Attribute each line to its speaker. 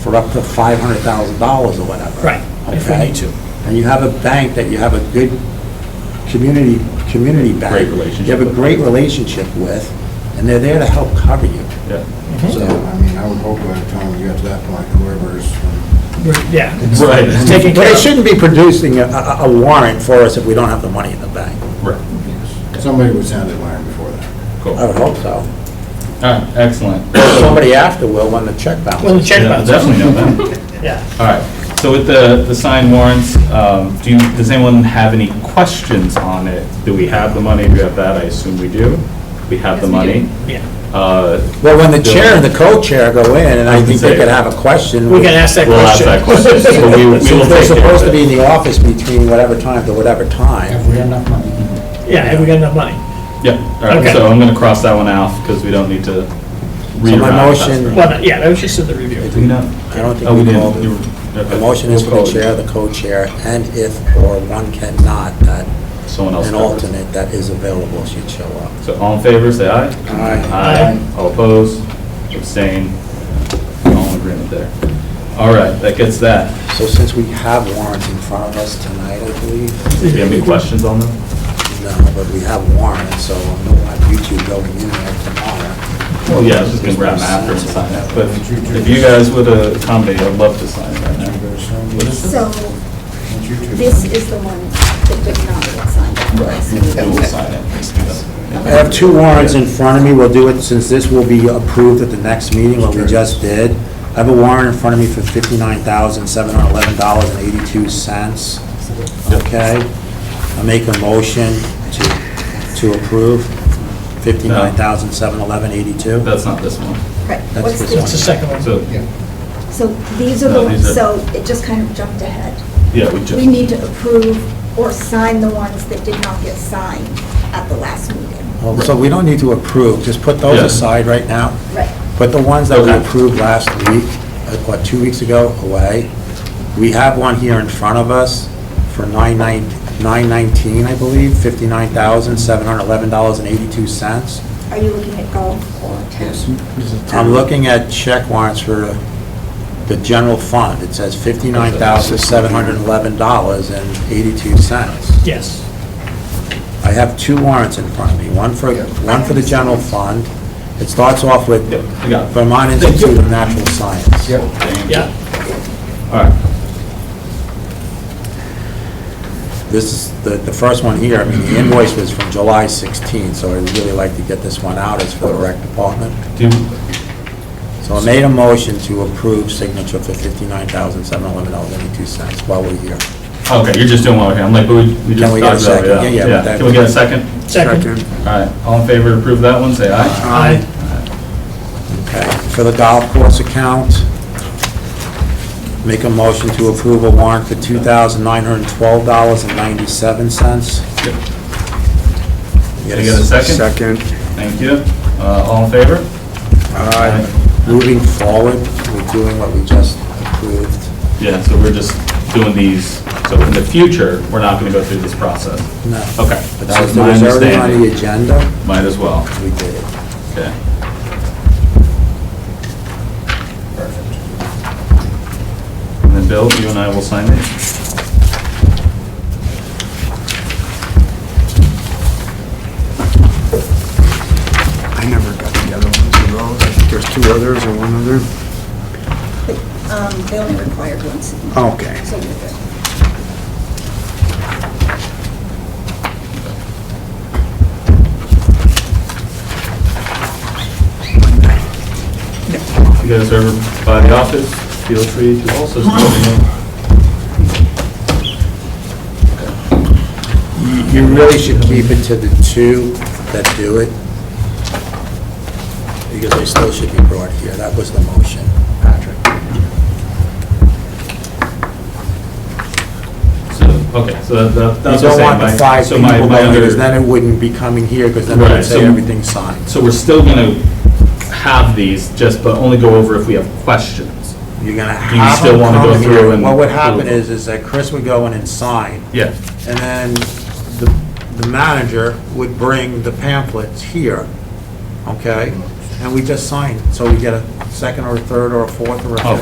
Speaker 1: for up to five hundred thousand dollars or whatever.
Speaker 2: Right, if we
Speaker 1: Okay?
Speaker 2: need to.
Speaker 1: And you have a bank that you have a good community, community bank.
Speaker 3: Great relationship
Speaker 1: You have a
Speaker 3: with.
Speaker 1: great relationship with, and they're there to help cover you.
Speaker 3: Yeah.
Speaker 2: Mm-hmm.
Speaker 1: So,
Speaker 4: I mean, I would hope by the time we get to that point, whoever's,
Speaker 2: We're- Yeah. it's-
Speaker 3: Right.
Speaker 2: it's Taken
Speaker 1: But
Speaker 2: care
Speaker 1: it
Speaker 2: of.
Speaker 1: shouldn't be producing a, a a warrant for us if we don't have the money in the bank.
Speaker 3: Right.
Speaker 4: somebody would sound the alarm before that.
Speaker 3: Cool.
Speaker 1: I
Speaker 3: All
Speaker 1: would hope so.
Speaker 3: right, excellent.
Speaker 1: Somebody after will when the check
Speaker 2: Well, the
Speaker 1: bounces.
Speaker 2: check
Speaker 3: Yeah,
Speaker 2: bounce.
Speaker 3: Definitely know that.
Speaker 2: Yeah.
Speaker 3: All right, so with the, the signed warrants, um, do you, does anyone have any questions on it? Do we have the money? Do we have that? I assume we do. We have the
Speaker 5: Yes, we do.
Speaker 3: money.
Speaker 2: Yeah.
Speaker 3: Uh,
Speaker 1: Well, when the chair and the co-chair go in, and I think they could have a question.
Speaker 2: We can ask that
Speaker 3: We'll ask
Speaker 2: question.
Speaker 3: that question. So we- we will
Speaker 1: Since they're
Speaker 3: take care of
Speaker 1: supposed to be
Speaker 3: it.
Speaker 1: in the office between whatever time to whatever time.
Speaker 4: we have enough money?
Speaker 2: Yeah, have we got enough money?
Speaker 3: Yeah, all right,
Speaker 2: Okay.
Speaker 3: so I'm going to cross that one out because we don't need to read
Speaker 1: So my
Speaker 3: around if that's
Speaker 1: motion-
Speaker 3: right.
Speaker 2: Well, no, yeah, that was just in the review.
Speaker 3: Do we not?
Speaker 1: I don't think
Speaker 3: Oh,
Speaker 1: we
Speaker 3: didn't.
Speaker 1: called it.
Speaker 3: You were- okay.
Speaker 1: The motion is for
Speaker 3: We'll
Speaker 1: the
Speaker 3: call it
Speaker 1: chair, the co-chair, and if or one cannot, that
Speaker 3: Someone else
Speaker 1: an
Speaker 3: covers it.
Speaker 1: alternate that is available should show up.
Speaker 3: So all in favor, say aye.
Speaker 2: Aye.
Speaker 3: All opposed, abstain, all in agreement there. All right, that gets that.
Speaker 1: So since we have warrants in front of us tonight, I believe,
Speaker 3: Do you have any questions on them?
Speaker 1: no, but we have warrants, so I know on YouTube going in there tomorrow.
Speaker 3: Well, yeah, I was just gonna grab them after and sign it, but if you guys would accommodate, I'd love to sign it right now.
Speaker 5: So this is the one that did not get signed.
Speaker 3: We will sign it.
Speaker 1: I have two warrants in front of me, we'll do it, since this will be approved at the next meeting, what we just did. I have a warrant in front of me for fifty-nine thousand, seven hundred eleven dollars and eighty-two cents. Okay? I make a motion to, to approve fifty-nine thousand, seven eleven, eighty-two.
Speaker 3: That's not this one.
Speaker 5: Right.
Speaker 1: That's
Speaker 5: What's
Speaker 1: this
Speaker 5: the-
Speaker 2: What's the second one?
Speaker 3: So,
Speaker 5: So these are
Speaker 3: No,
Speaker 5: the,
Speaker 3: these are-
Speaker 5: ones. so it just kind of jumped ahead.
Speaker 3: yeah, we
Speaker 5: We need
Speaker 3: just,
Speaker 5: to approve or sign the ones that did not get signed at the last meeting.
Speaker 1: Well, So we don't need to approve, just put those
Speaker 3: Yeah.
Speaker 1: aside right now.
Speaker 5: Right.
Speaker 1: But the ones that we
Speaker 3: Okay.
Speaker 1: approved last week, uh, what, two weeks ago, away, we have one here in front of us for nine nine nine nineteen, I believe, fifty-nine thousand, seven hundred eleven dollars and eighty-two cents.
Speaker 5: Are you looking at golf or town?
Speaker 1: I'm looking at check warrants for the general fund. It says fifty-nine thousand, seven hundred eleven dollars and eighty-two cents.
Speaker 2: Yes.
Speaker 1: I have two warrants in front of me, one for, one for the general fund. It starts off with
Speaker 3: Yep, I got it.
Speaker 1: Vermont Institute of Natural Science.
Speaker 2: Yeah.
Speaker 3: all right,
Speaker 1: This is, the, the first one here, I mean, the invoice was from July 16, so I'd really like to get this one out, it's for the rec department.
Speaker 3: do,
Speaker 1: So I made a motion to approve signature for $59,711.82 while we're here.
Speaker 3: okay, you're just doing one, okay, I'm like, but we we just
Speaker 1: Can we get a
Speaker 3: talked about it.
Speaker 1: second? Yeah, yeah, but that-
Speaker 3: Can we get a second?
Speaker 2: Second.
Speaker 3: All right, all in favor to approve that one, say aye.
Speaker 2: Aye.
Speaker 1: Okay, for the golf course account, make a motion to approve a warrant for $2,912.97.
Speaker 3: Yep.
Speaker 1: Yes.
Speaker 3: Can I get a second? Thank you. Uh, all in favor?
Speaker 1: Moving forward, we're doing what we just approved.
Speaker 3: Yeah, so we're just doing these, so in the future, we're not gonna go through this process.
Speaker 1: No.
Speaker 3: Okay,
Speaker 1: But
Speaker 3: that
Speaker 1: since
Speaker 3: was
Speaker 1: it
Speaker 3: my
Speaker 1: was already on the
Speaker 3: understanding.
Speaker 1: agenda,
Speaker 3: Might as well,
Speaker 1: we did it.
Speaker 3: okay. And then Bill, you and I will sign it.
Speaker 6: I never got the other ones of those. I think there's two others or one other.
Speaker 5: Um, They only required one signature.
Speaker 4: Oh.
Speaker 6: Okay.
Speaker 5: So you're good.
Speaker 3: You guys are by the office, feel free to also sign it.
Speaker 1: You- You really should keep it to the two that do it, because they still should be brought here. That was the motion, Patrick.
Speaker 3: So, okay, so that-
Speaker 1: You
Speaker 3: that's what I'm
Speaker 1: don't
Speaker 3: saying.
Speaker 1: want the
Speaker 3: my-
Speaker 1: five
Speaker 3: so
Speaker 1: people
Speaker 3: my- my
Speaker 1: going,
Speaker 3: other-
Speaker 1: because then it wouldn't be coming here, because then it would
Speaker 3: Right,
Speaker 1: say
Speaker 3: so-
Speaker 1: everything's signed.
Speaker 3: So we're still gonna have these, just, but only go over if we have questions.
Speaker 1: You're gonna
Speaker 3: Do you
Speaker 1: have
Speaker 3: still
Speaker 1: them
Speaker 3: wanna go
Speaker 1: come
Speaker 3: through
Speaker 1: here.
Speaker 3: and-
Speaker 1: What would happen is, is that Chris would go in and sign,
Speaker 3: Yeah.
Speaker 1: and then the the manager would bring the pamphlets here, okay? And we just sign, so we get a second or a third or a fourth or a
Speaker 3: Oh,
Speaker 1: fifth.
Speaker 3: we'll